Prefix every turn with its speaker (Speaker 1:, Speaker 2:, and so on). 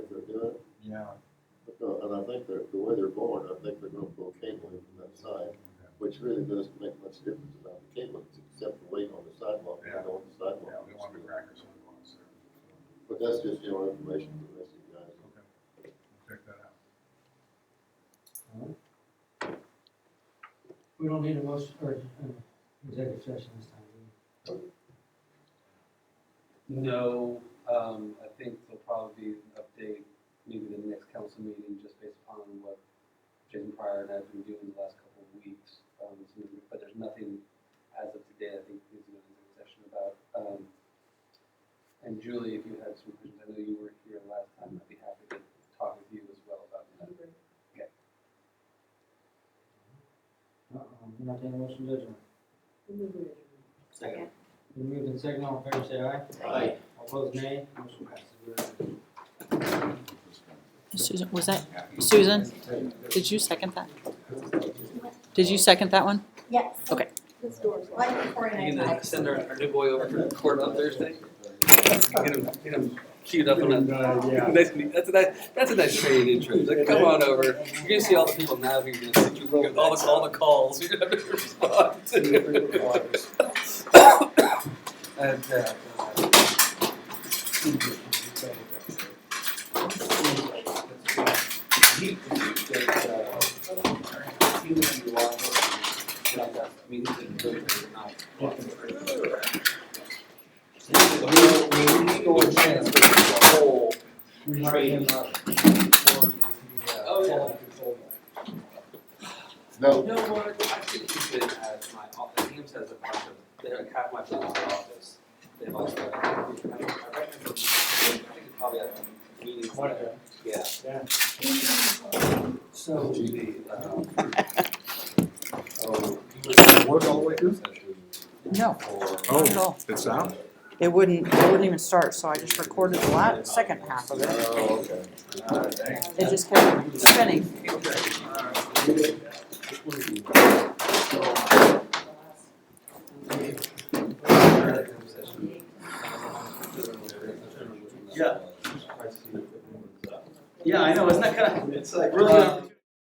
Speaker 1: Yeah.
Speaker 2: No, and I think they're, the way they're born, I think they're gonna pull cable in from that side, which really doesn't make much difference about the cable, except the weight on the sidewalk, and on the
Speaker 1: Yeah,
Speaker 2: sidewalk.
Speaker 1: we want to be crackers on the ones there.
Speaker 2: But that's just general information for the rest of you guys.
Speaker 1: Okay. We'll Check that out.
Speaker 3: We don't need a motion or uh, executive session this time. do we?
Speaker 4: No, um, I think there'll probably be an update, maybe the next council meeting, just based upon what Jason Pryor and I have been doing the last couple of weeks. Um, so- but there's nothing as of today, I think, is in the session about. Um, and Julie, if you had some questions, I know you were here last time, I'd be happy to talk with you as well about that.
Speaker 3: Uh-uh, I'm not taking a motion to adjourn.
Speaker 5: Second.
Speaker 3: We moved in second, all in favor, say aye.
Speaker 2: Aye.
Speaker 3: All opposed, nay. Motion passes. We are adjourned.
Speaker 6: Susan, was that, Susan, did you second that? Did you second that one?
Speaker 5: Yes.
Speaker 6: Okay.
Speaker 5: This door's locked. Like before
Speaker 4: You
Speaker 5: I
Speaker 4: gonna send our, our new boy over for court on Thursday? Get him, get him queued up on that. Nice, meet- that's a nice, that's a nice training intro. He's Like, come on over. You're gonna see all the people now who are gonna send you all the, all the calls. You're gonna have to respond to. And, uh, he- that, uh, he was in the law enforcement, and I got- I mean, he didn't go there at night. So we- we need to go and transfer the whole training.
Speaker 3: uh,
Speaker 4: Oh, yeah.
Speaker 2: No,
Speaker 4: No, well, I think he's been at my office, Ames has a bunch of, they have half my people in my office. They've also, I think, I reckon, I think it's probably at a meeting. Yeah.
Speaker 3: So.
Speaker 4: The, um, Oh.
Speaker 1: Work all the way through?
Speaker 6: No,
Speaker 1: Oh.
Speaker 6: not at all.
Speaker 1: It's out?
Speaker 6: It wouldn't, it wouldn't even start, so I just recorded the la second half of it.
Speaker 1: Oh, okay.
Speaker 4: uh,
Speaker 6: It just kept spinning.
Speaker 4: Yeah. Yeah, I know, isn't that kind of, it's like really,